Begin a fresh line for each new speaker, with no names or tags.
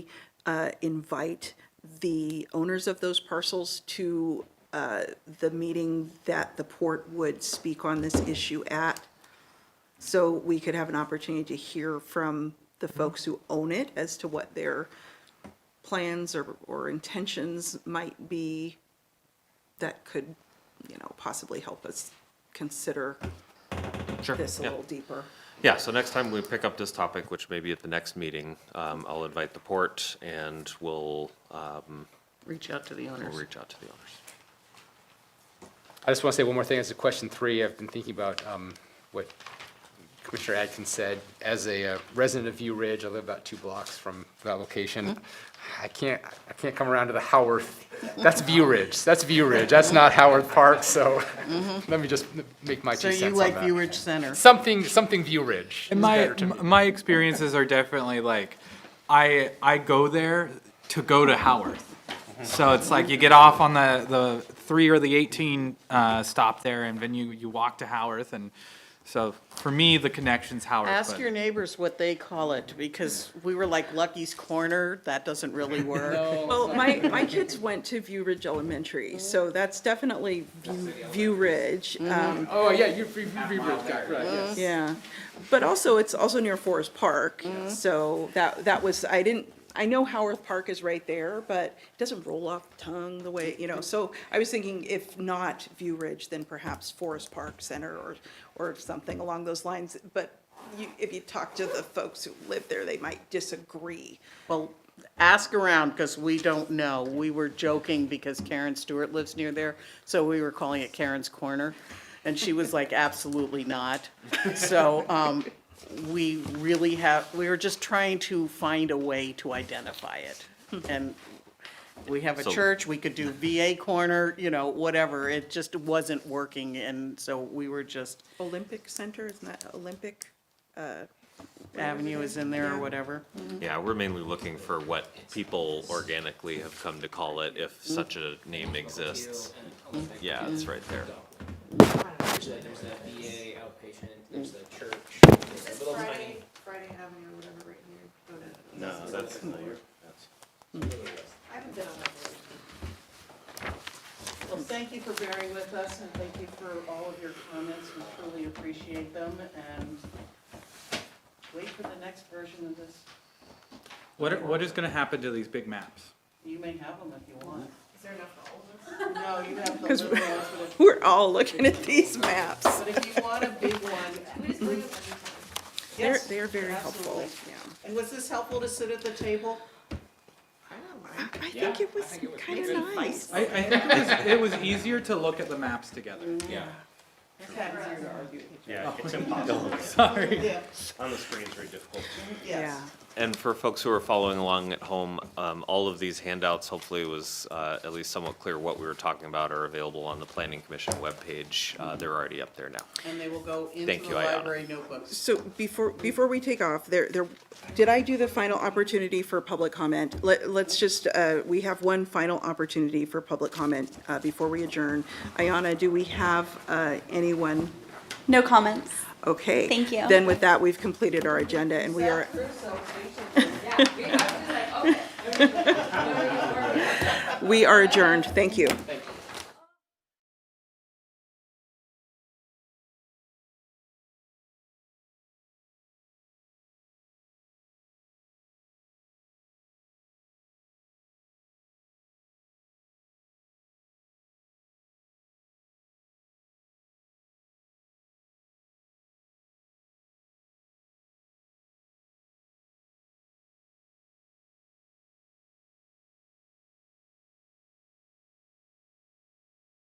uh, invite the owners of those parcels to uh, the meeting that the port would speak on this issue at, so we could have an opportunity to hear from the
Mm-hmm.
folks who own it as to what their plans or, or intentions might be that could, you know, possibly help us consider
Sure.
this a
yeah.
little deeper.
Yeah, so next time we pick up this topic, which may be at the next meeting, um, I'll invite the port and we'll, um,
Reach out to the
we'll
owners.
reach out to the owners.
I just want to say one more thing as to question three. I've been thinking about um, what Commissioner Atkins said. As a uh, resident of View Ridge, I live about two blocks from that location.
Mm-hmm.
I can't, I can't come around to the Howarth. That's View Ridge. That's View Ridge. That's not Howard Park, so let me just make my
Mm-hmm. So
two cents
you
on
like
that.
Viewridge Center?
Something, something View Ridge is
And my
better to me.
m- my experiences are definitely like, I I go there to go to Howarth, so it's like you get off on the the three or the eighteen uh, stop there, and then you you walk to Howarth, and so for me the connection's Howarth.
Ask
but-
your neighbors what they call it, because we were like Lucky's Corner, that doesn't really work.
Well, my, my kids went to View Ridge Elementary, so that's definitely View- View Ridge. um,
Oh, yeah, you're View View Ridge guy, right, yes.
Yeah, but also, it's also near Forest Park, so that, that was, I didn't, I know Howarth Park is right there, but it doesn't roll off the tongue the way, you know, so I was thinking if not View Ridge, then perhaps Forest Park Center or, or something along those lines, but you, if you talk to the folks who live there, they might disagree.
Well, ask around, because we don't know. We were joking because Karen Stewart lives near there, so we were calling it Karen's Corner. And she was like, absolutely not. So, um, we really have, we were just trying to find a way to identify it. And we have a
So-
church, we could do VA Corner, you know, whatever. It just wasn't working, and so we were just,
Olympic Center, isn't that Olympic? uh,
Avenue is in there or
Yeah.
whatever.
Yeah, we're mainly looking for what people organically have come to call it, if such a name exists. Yeah, it's right there.
Actually, there's that VA outpatient, there's the church. there's that little tiny-
Friday Avenue or whatever right here.
No, that's familiar.
I haven't been on that road. Well, thank you for bearing with us and thank you for all of your comments. We truly appreciate them and wait for the next version of this.
What are- what is going to happen to these big maps?
You may have them if you want.
Is there enough for all of us?
No, you have the
'Cause
little
we-
ones, but if-
We're all looking at these maps.
but if you want a big one,
We just bring them every time.
They're,
yes.
they're very helpful,
absolutely.
yeah.
And was this helpful to sit at the table?
I think it was kind of nice.
I, I think it was, it was easier to look at the maps together.
Mm-hmm.
Yeah.
It's easier to argue.
Oh.
Yeah, it's impossible.
Sorry.
Yeah,
On the screen, it's very difficult.
Yeah.
yes.
And for folks who are following along at home, um, all of these handouts, hopefully it was, uh, at least somewhat clear what we were talking about are available on the planning commission webpage. Uh, they're already up there now.
And they will go
Thank
into the
you, Ayana.
library notebooks.
So before, before we take off, there, there, did I do the final opportunity for public comment? Let, let's just, uh, we have one final opportunity for public comment, uh, before we adjourn. Ayana, do we have, uh, anyone?
No comments.
Okay.
Thank you.
Then with that, we've completed our agenda and we are, we are adjourned. Thank you.